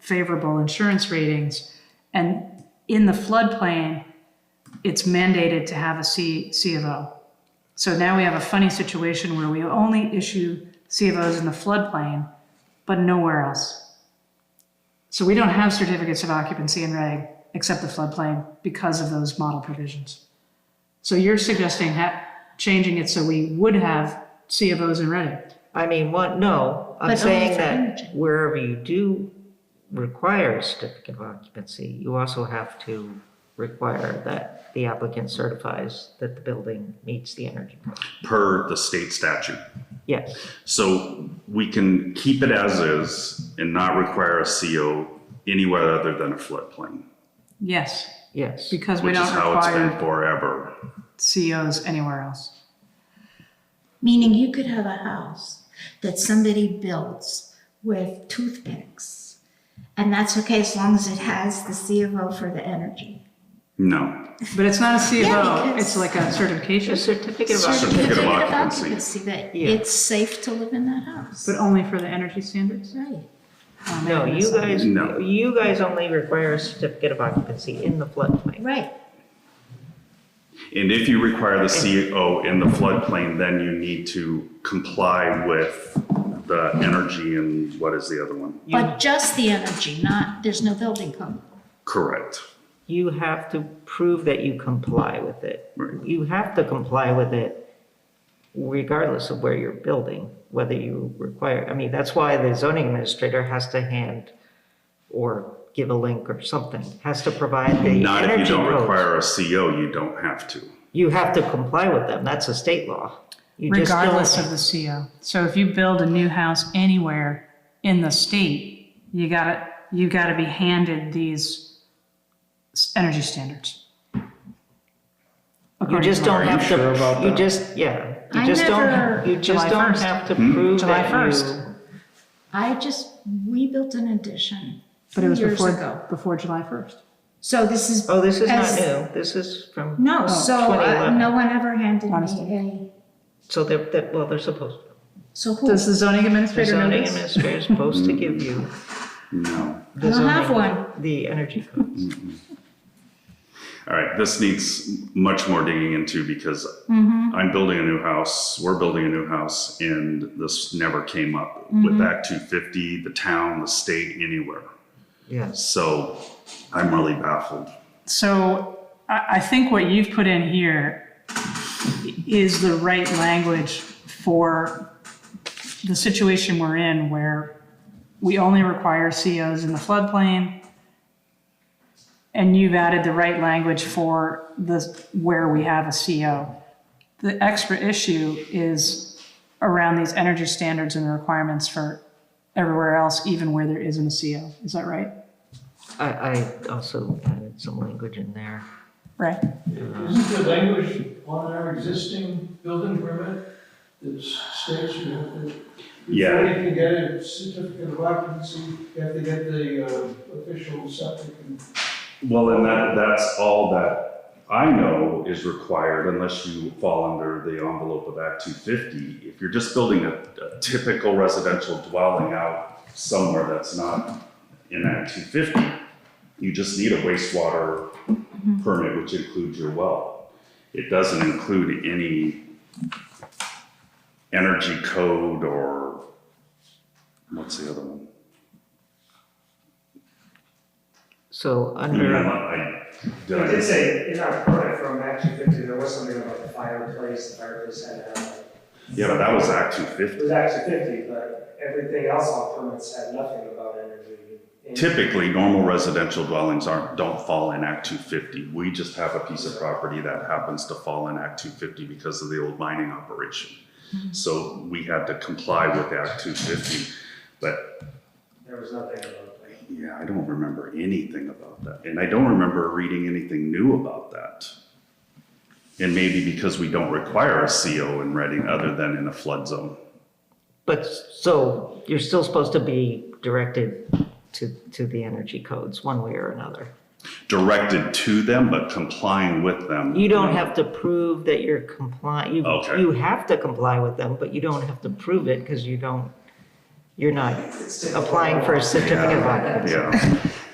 favorable insurance ratings. And in the floodplain, it's mandated to have a C, C of O. So now we have a funny situation where we only issue C of Os in the floodplain, but nowhere else. So we don't have certificates of occupancy in reg, except the floodplain, because of those model provisions. So you're suggesting ha, changing it so we would have C of Os in reg? I mean, what, no, I'm But only saying for energy. that wherever you do require a certificate of occupancy, you also have to require that the applicant certifies that the building meets the energy. code. per the state statute. Yes, So we can keep it as is and not require a CO anywhere other than a floodplain, Yes, yes. because we which is don't how it's been require forever. COs anywhere else. Meaning you could have a house that somebody builds with toothpicks. And that's okay as long as it has the C of O for the energy. No, But it's not a C of Yeah, O, because- it's like a certification, A certificate of occupancy, Certificate of occupancy. That Yeah. it's safe to live in that house. but only for the energy standards? Right. Oh, no, man, you that's- guys, No. you guys only require a certificate of occupancy in the floodplain. Right. and if you require the CO in the floodplain, then you need to comply with the energy and what is the other one? You, But just the energy, not, there's no building code. Correct. you have to prove that you comply with it. Right. You have to comply with it regardless of where you're building, whether you require, I mean, that's why the zoning administrator has to hand or give a link or something, has to provide the Not if you energy don't codes. require a CO, you don't have to. You have to comply with them, that's a state law. You just don't- regardless of the CO. So if you build a new house anywhere in the state, you gotta, you gotta be handed these s- energy standards. You According just to law. don't have you sure to, about you that? just, yeah, you I just never- don't, you July just don't 1st. have to prove July that 1st. you- I just, we built an addition But it was years before, ago. before July 1st. So this is. Oh, this is not as- new, this is from, No, so uh, 2011. no one ever handed oh, Honestly. me a, so they're, they're- well, they're supposed, so who? Does the zoning the administrator know zoning this? administrator is supposed to give you No. the I don't have zoning- one. The energy codes. All right, this needs much more digging into because I'm building a new house, we're building a new house, and this never came up with Act 250, the town, the state, anywhere. Yes. So I'm really baffled. So I, I think what you've put in here is the right language for the situation we're in where we only require COs in the floodplain. And you've added the right language for the, where we have a CO. The extra issue is around these energy standards and the requirements for everywhere else, even where there isn't a CO. Is that right? I, I also added some language in there. Right? Isn't there language on our existing building permit that states you have to, before Yeah. you can get a certificate of occupancy, you have to get the uh, official septic and Well, and that, that's all that I know is required unless you fall under the envelope of Act 250. If you're just building a, a typical residential dwelling out somewhere that's not in Act 250, you just need a wastewater permit, which includes your well. It doesn't include any energy code or, what's the other one? So I mean, under, I- I- did I I- did say, in our permit from Act 250, there was something about the fireplace, the fireplace had, uh, Yeah, but that was Act 250. it was Act 250, but everything else on permits had nothing about energy. And- Typically, normal residential dwellings aren't, don't fall in Act 250. We just have a piece of property that happens to fall in Act 250 because of the old mining operation. So we had to comply with Act 250, but There was nothing about that. yeah, I don't remember anything about that. And I don't remember reading anything new about that. And maybe because we don't require a CO in Reading other than in a flood zone. but, so you're still supposed to be directed to, to the energy codes, one way or another. Directed to them, but complying with them. You don't have to prove that you're compliant, you, Okay. you have to comply with them, but you don't have to prove it because you don't, you're not applying for a certificate of occupancy. Yeah,